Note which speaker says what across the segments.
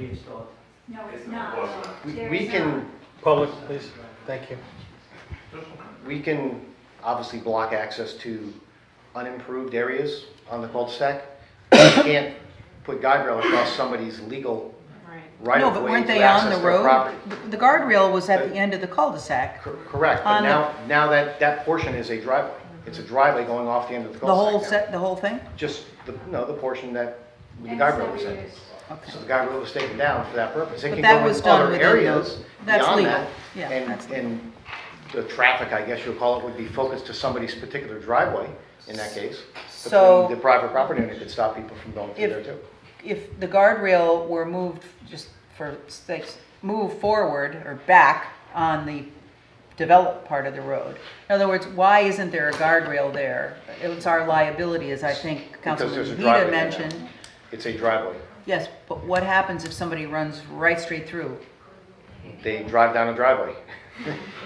Speaker 1: reinstalled.
Speaker 2: No, it's
Speaker 3: It
Speaker 2: not.
Speaker 3: was not.
Speaker 4: We-
Speaker 2: There
Speaker 4: We
Speaker 2: is
Speaker 4: can,
Speaker 2: not.
Speaker 5: Public, please, thank you.
Speaker 4: we can obviously block access to unimproved areas on the cul-de-sac. We can't put guide rail across somebody's legal right
Speaker 6: No,
Speaker 4: of
Speaker 6: but
Speaker 4: way
Speaker 6: weren't
Speaker 4: to
Speaker 6: they on
Speaker 4: access
Speaker 6: the
Speaker 4: their
Speaker 6: road?
Speaker 4: property.
Speaker 6: The- The guardrail was at the end of the cul-de-sac,
Speaker 4: Cor- Correct, but
Speaker 6: On the-
Speaker 4: now, now that, that portion is a driveway. It's a driveway going off the end of the
Speaker 6: the whole
Speaker 4: cul-de-sac now.
Speaker 6: set, the whole thing?
Speaker 4: Just, the no, the portion that the
Speaker 2: And
Speaker 4: guide
Speaker 2: so
Speaker 4: rail was
Speaker 2: it
Speaker 4: in.
Speaker 2: is.
Speaker 6: Okay.
Speaker 4: So the guide rail was taken down for that purpose. It
Speaker 6: But
Speaker 4: can
Speaker 6: that
Speaker 4: go
Speaker 6: was
Speaker 4: in
Speaker 6: done
Speaker 4: other
Speaker 6: within
Speaker 4: areas
Speaker 6: those- that's
Speaker 4: beyond
Speaker 6: legal.
Speaker 4: that.
Speaker 6: Yeah, that's
Speaker 4: And,
Speaker 6: legal.
Speaker 4: and the traffic, I guess you'll call it, would be focused to somebody's particular driveway in that case.
Speaker 6: So-
Speaker 4: Between The private property owner could stop people from going through
Speaker 6: If-
Speaker 4: there too.
Speaker 6: If the guardrail were moved, just for sakes, move forward or back on the developed part of the road. In other words, why isn't there a guardrail there? It's our liability, as I think
Speaker 4: there's a
Speaker 6: Councilman
Speaker 4: driveway
Speaker 6: Vida
Speaker 4: there now.
Speaker 6: mentioned.
Speaker 4: It's a driveway.
Speaker 6: Yes, but what happens if somebody runs right straight through?
Speaker 4: They drive down a driveway.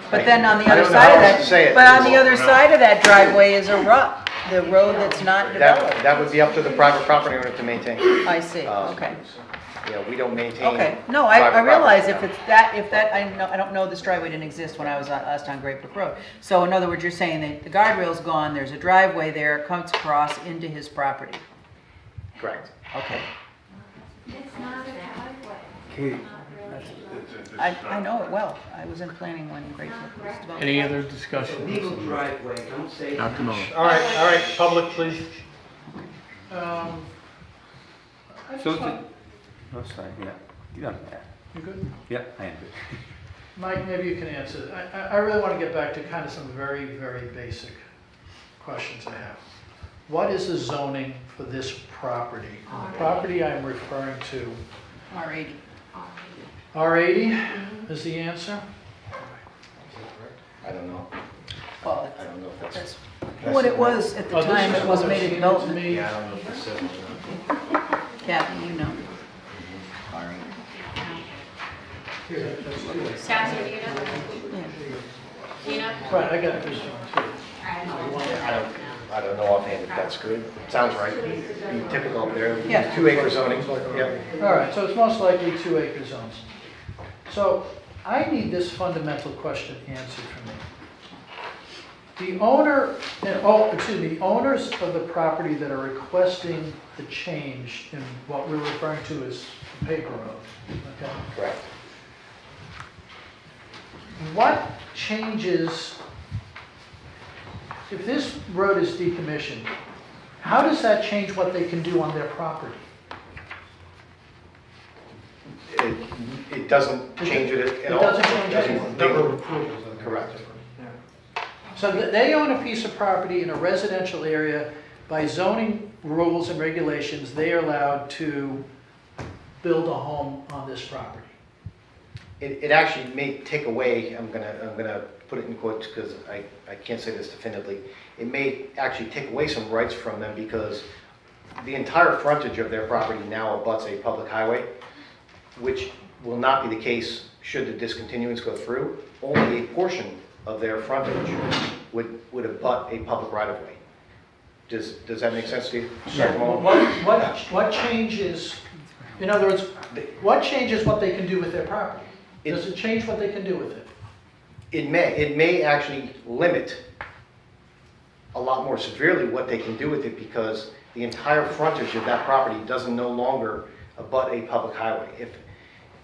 Speaker 6: But then on the
Speaker 4: I
Speaker 6: other
Speaker 4: don't know
Speaker 6: side
Speaker 4: how
Speaker 6: of
Speaker 4: else to say
Speaker 6: that,
Speaker 4: it.
Speaker 6: but on the
Speaker 3: Well,
Speaker 6: other
Speaker 3: no.
Speaker 6: side of that driveway is a rock, the road that's
Speaker 4: That,
Speaker 6: not developed.
Speaker 4: that would be up to the private property owner to maintain. You
Speaker 6: I see,
Speaker 4: Um,
Speaker 6: okay,
Speaker 4: know, we don't maintain.
Speaker 6: okay. No, I, I
Speaker 4: private
Speaker 6: realize if
Speaker 4: property.
Speaker 6: it's that, if that, I know, I don't know this driveway didn't exist when I was on, last on Great Brook Road. So in other words, you're saying that the guardrail's gone, there's a driveway there, comes across into his property.
Speaker 4: Correct.
Speaker 6: Okay,
Speaker 2: It's not a driveway.
Speaker 5: Katie.
Speaker 2: Not really.
Speaker 3: It's- it's- it's
Speaker 6: I,
Speaker 3: not-
Speaker 6: I know it well. I was in planning when Great Brook was developed.
Speaker 7: Any other
Speaker 1: It's a
Speaker 7: discussion?
Speaker 1: legal driveway, don't say.
Speaker 7: Dr. Mullin.
Speaker 5: All right, all right, public, please.
Speaker 7: Um,
Speaker 8: So, it's a- oh, sorry, yeah, yeah, yeah,
Speaker 7: you good?
Speaker 8: yeah, I am good.
Speaker 7: Mike, maybe you can answer. I, I- I really want to get back to kind of some very, very basic questions I have. What is the zoning for this property? And The property I'm referring to,
Speaker 6: R eighty. Mm-hmm.
Speaker 7: R80 is the answer?
Speaker 4: I don't know.
Speaker 6: Well,
Speaker 4: I don't know if that's.
Speaker 6: that's what it was at the
Speaker 7: Oh, this
Speaker 6: time,
Speaker 7: is
Speaker 6: it was
Speaker 7: what
Speaker 6: made a
Speaker 7: seemed to
Speaker 6: development.
Speaker 7: me-
Speaker 4: I don't know if that's civil or not.
Speaker 6: Kathy, you know.
Speaker 9: Scott, do you know? Do you know?
Speaker 7: Right, I got this one too.
Speaker 4: I don't, I don't know offhand if that's good. Sounds right. Be typical up there.
Speaker 6: Yeah.
Speaker 4: Two acre zoning. Yep.
Speaker 7: All right, so it's most likely two acre zones. So I need this fundamental question answered for me. The owner, and, oh, excuse me, the owners of the property that are requesting the change in what we're referring to as the paper road, okay?
Speaker 4: Correct.
Speaker 7: What changes, if this road is decommissioned, how does that change what they can do on their property?
Speaker 4: It, it doesn't change it at all.
Speaker 7: It doesn't change anything.
Speaker 4: Number of Correct.
Speaker 7: So th- they own a piece of property in a residential area. By zoning rules and regulations, they are allowed to build a home on this property.
Speaker 4: It, it actually may take away, I'm gonna, I'm gonna put it in quotes because I, I can't say this definitively. It may actually take away some rights from them because the entire frontage of their property now abuts a public highway, which will not be the case should the discontinuance go through. Only a portion of their frontage would, would abut a public right of way. Does, does that make sense to you?
Speaker 7: So what, what, what changes, in other words, what changes what they can do with their property? Does it change what they can do with it?
Speaker 4: it may, it may actually limit a lot more severely what they can do with it because the entire frontage of that property doesn't no longer abut a public highway. If,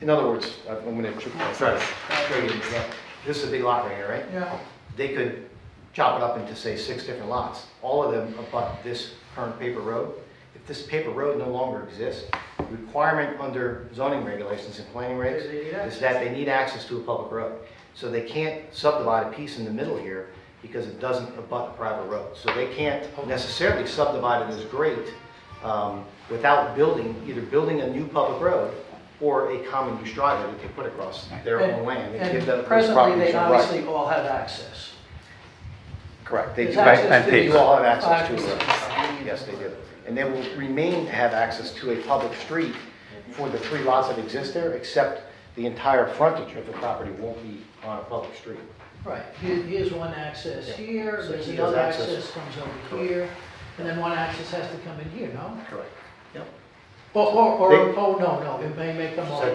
Speaker 4: in other words, I'm gonna tr- try to show you an example. This is a big lot right here, right?
Speaker 7: Yeah.
Speaker 4: They could chop it up into, say, six different lots. All of them abut this current paper road. If this paper road no longer exists, the requirement under zoning regulations and planning regs
Speaker 7: They need
Speaker 4: is that they need access to a public road. So they can't subdivide a piece in the middle here because it doesn't abut a private road. So they can't necessarily subdivide it as great um, without building, either building a new public road or a common use driveway that they put across their own land. and give
Speaker 7: And
Speaker 4: them- those
Speaker 7: and presently,
Speaker 4: properties
Speaker 7: they
Speaker 4: a right.
Speaker 7: obviously all have access.
Speaker 4: Correct. They
Speaker 7: There's
Speaker 4: do.
Speaker 7: access
Speaker 8: and
Speaker 7: to
Speaker 8: paved.
Speaker 4: You all have access
Speaker 7: access.
Speaker 4: to it. Yes, they do. And they will remain to have access to a public street for the three lots that exist there, except the entire frontage of the property won't be on a public street.
Speaker 7: Right, here- here's one access
Speaker 4: Yeah.
Speaker 7: here,
Speaker 4: So
Speaker 7: there's
Speaker 4: he has
Speaker 7: another
Speaker 4: access.
Speaker 7: access comes over here, and then one access has to come in here, no?
Speaker 4: Correct. Yep.
Speaker 7: Or, or, or,
Speaker 4: They-
Speaker 7: oh, no, no, it may make them all.